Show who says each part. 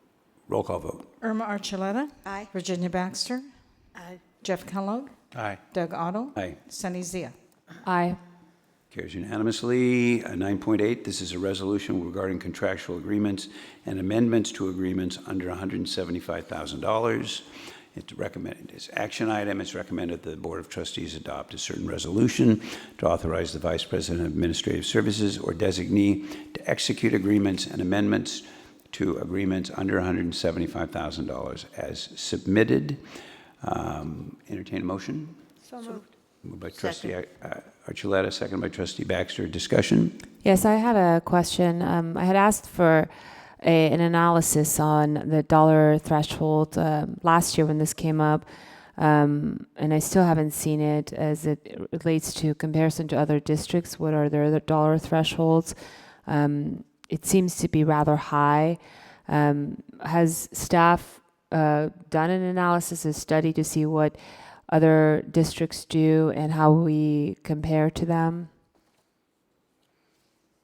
Speaker 1: Roll call vote.
Speaker 2: Irma Archuleta.
Speaker 3: Aye.
Speaker 2: Virginia Baxter.
Speaker 3: Aye.
Speaker 2: Jeff Kellogg.
Speaker 4: Aye.
Speaker 2: Doug Otto.
Speaker 1: Aye.
Speaker 2: Sunny Zia.
Speaker 5: Aye.
Speaker 1: Carries unanimously. Uh, 9.8, this is a resolution regarding contractual agreements and amendments to agreements under $175,000. It's recommended, it's action item, it's recommended the Board of Trustees adopt a certain resolution to authorize the Vice President of Administrative Services or designee to execute agreements and amendments to agreements under $175,000 as submitted. Um, Entertain a motion?
Speaker 3: So moved.
Speaker 1: Moved by trustee uh, Archuleta, second by trustee Baxter. Discussion?
Speaker 5: Yes, I had a question. Um, I had asked for a, an analysis on the dollar threshold um last year when this came up, um, and I still haven't seen it as it relates to comparison to other districts. What are their other dollar thresholds? Um, it seems to be rather high. Um, has staff uh, done an analysis, a study to see what other districts do and how we compare to them?